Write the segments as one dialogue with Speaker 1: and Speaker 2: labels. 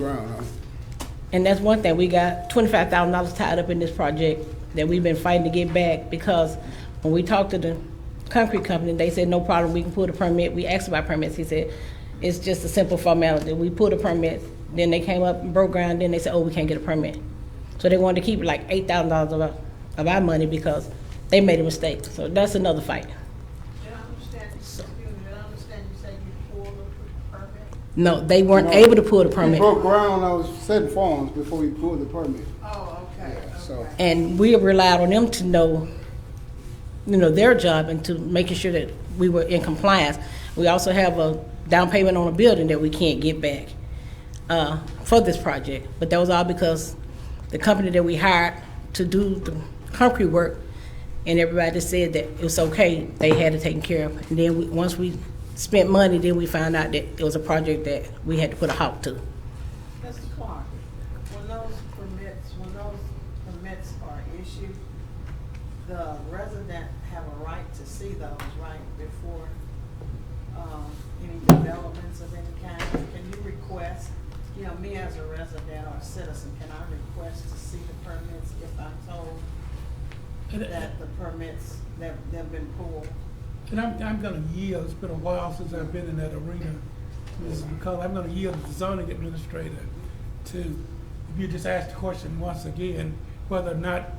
Speaker 1: around, huh?
Speaker 2: And that's one thing, we got twenty-five thousand dollars tied up in this project that we've been fighting to get back because when we talked to the concrete company, they said, no problem, we can pull the permit. We asked about permits, he said, it's just a simple formality. We pulled the permit, then they came up and broke ground, then they said, oh, we can't get a permit. So they wanted to keep like eight thousand dollars of our, of our money because they made a mistake. So that's another fight.
Speaker 3: Did I understand, excuse me, did I understand you said you pulled the permit?
Speaker 2: No, they weren't able to pull the permit.
Speaker 1: We broke ground, I was setting forms before we pulled the permit.
Speaker 3: Oh, okay,
Speaker 1: Yeah, so-
Speaker 3: okay.
Speaker 2: And we relied on them to know, you know, their job and to making sure that we were in compliance. We also have a down payment on a building that we can't get back uh, for this project. But that was all because the company that we hired to do the concrete work and everybody said that it was okay, they had it taken care of. And then we, once we spent money, then we found out that it was a project that we had to put a halt to.
Speaker 3: Mr. Clark, when those permits, when those permits are issued, the resident have a right to see those, right, before, um, any developments of any kind? Can you request, you know, me as a resident or a citizen, can I request to see the permits if I'm told that the permits, that they've been pulled?
Speaker 4: And I'm, I'm gonna yield, it's been a while since I've been in that arena, Mrs. McCullough, I'm gonna yield to the zoning administrator to, if you just ask the question once again, whether or not,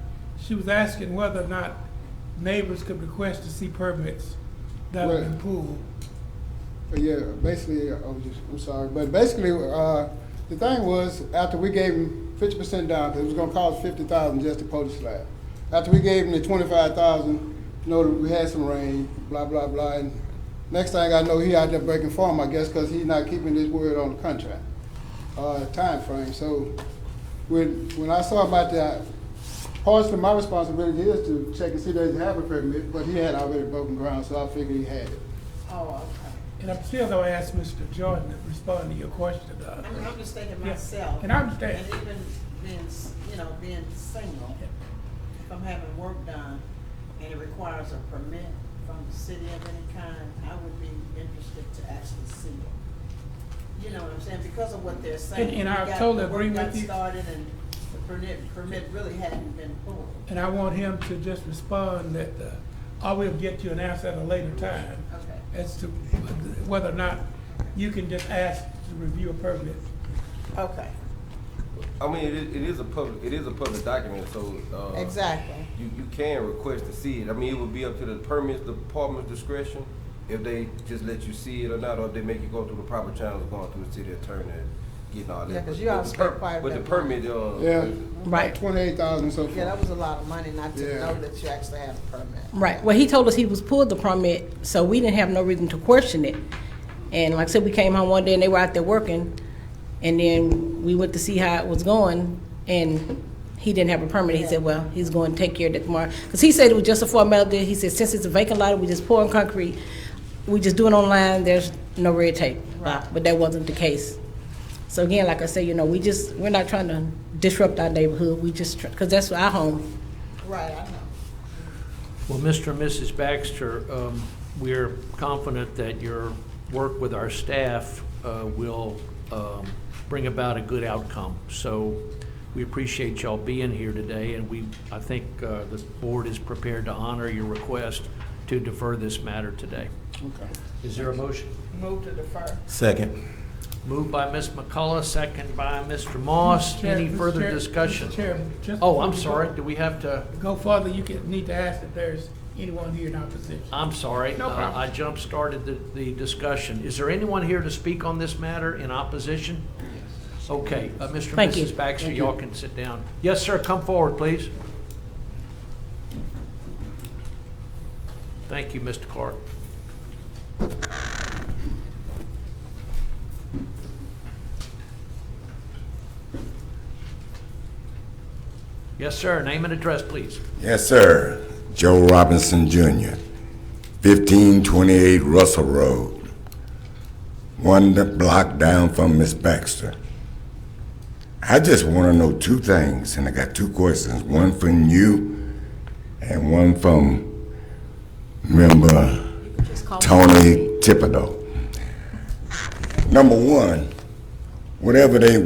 Speaker 4: she was asking whether or not neighbors could request to see permits that have been
Speaker 1: Right.
Speaker 4: pulled.
Speaker 1: But yeah, basically, uh, I'm just, I'm sorry, but basically, uh, the thing was, after we gave him fifty percent down, 'cause it was gonna cost fifty thousand just to coat the slab. After we gave him the twenty-five thousand, you know, we had some rain, blah, blah, blah, and next thing I know, he out there breaking form, I guess, cause he's not keeping his word on the contract, uh, timeframe, so when, when I saw about that, partially my responsibility is to check and see that he have a permit, but he had already broken ground, so I figured he had it.
Speaker 3: Oh, okay.
Speaker 4: And I'm still gonna ask Mr. Jordan to respond to your question, uh,
Speaker 3: I'm, I'm just thinking
Speaker 4: Yeah,
Speaker 3: myself.
Speaker 4: and I understand.
Speaker 3: And even being, s- you know, being single, if I'm having work done and it requires a permit from the city of any kind, I would be interested to actually see it. You know what I'm saying? Because of what they're saying.
Speaker 4: And- and
Speaker 3: we
Speaker 4: I
Speaker 3: got-
Speaker 4: totally
Speaker 3: the work
Speaker 4: agree with
Speaker 3: got
Speaker 4: you.
Speaker 3: started and the permit, permit really hadn't been pulled.
Speaker 4: and I want him to just respond that, uh, I will get you an answer at a later time.
Speaker 3: Okay.
Speaker 4: As to whether or not you can just ask to review a permit.
Speaker 3: Okay,
Speaker 5: I mean, it is, it is a public, it is a public document, so, uh.
Speaker 3: exactly.
Speaker 5: You, you can request to see it. I mean, it would be up to the permits department's discretion if they just let you see it or not, or if they make you go through the proper channels, going through the city attorney and getting all that.
Speaker 6: Yeah, 'cause
Speaker 5: But-
Speaker 6: you
Speaker 5: but
Speaker 6: all
Speaker 5: the
Speaker 6: spent
Speaker 5: per-
Speaker 6: quite a
Speaker 5: But
Speaker 6: bit
Speaker 5: the
Speaker 6: of
Speaker 5: permit, uh.
Speaker 1: Yeah.
Speaker 2: Right.
Speaker 1: Twenty-eight thousand so far.
Speaker 6: Yeah, that was a lot of money not to
Speaker 1: Yeah.
Speaker 6: know that you actually had a permit.
Speaker 2: Right. Well, he told us he was pulled the permit, so we didn't have no reason to question it. And like I said, we came home one day and they were out there working, and then we went to see how it was going, and he didn't have a permit. He said, well, he's going to take care of that tomorrow. Because he said it was just a formality. He said, since it's a vacant lot, we just pour in concrete. We just do it online. There's no red tape. Right. But that wasn't the case. So again, like I say, you know, we just, we're not trying to disrupt our neighborhood. We just, because that's our home.
Speaker 6: Right, I know.
Speaker 7: Well, Mr. and Mrs. Baxter, um, we're confident that your work with our staff uh, will um, bring about a good outcome. So we appreciate y'all being here today, and we, I think uh, the board is prepared to honor your request to defer this matter today.
Speaker 1: Okay.
Speaker 7: Is there a motion?
Speaker 6: Move to defer.
Speaker 8: Second.
Speaker 7: Moved by Ms. McCullough, second by Mr. Moss.
Speaker 4: Chair-
Speaker 7: Any
Speaker 4: Mr.
Speaker 7: further
Speaker 4: Chair-
Speaker 7: discussion?
Speaker 4: Mr. Chair, just-
Speaker 7: Oh, I'm sorry, do we have to?
Speaker 4: Go further, you can, need to ask if there's anyone here in opposition.
Speaker 7: I'm sorry.
Speaker 4: No
Speaker 7: uh,
Speaker 4: problem.
Speaker 7: I jump-started the, the discussion. Is there anyone here to speak on this matter in opposition? Okay, uh, Mr. and
Speaker 2: Thank you.
Speaker 7: Mrs. Baxter, y'all can sit down. Yes, sir, come forward, please. Thank you, Mr. Clark. Yes, sir, name and address, please.
Speaker 8: Yes, sir. Joe Robinson Jr., 1528 Russell Road, one block down from Miss Baxter. I just want to know two things, and I got two questions, one from you and one from member Tony Thibodeau. Number one, whatever they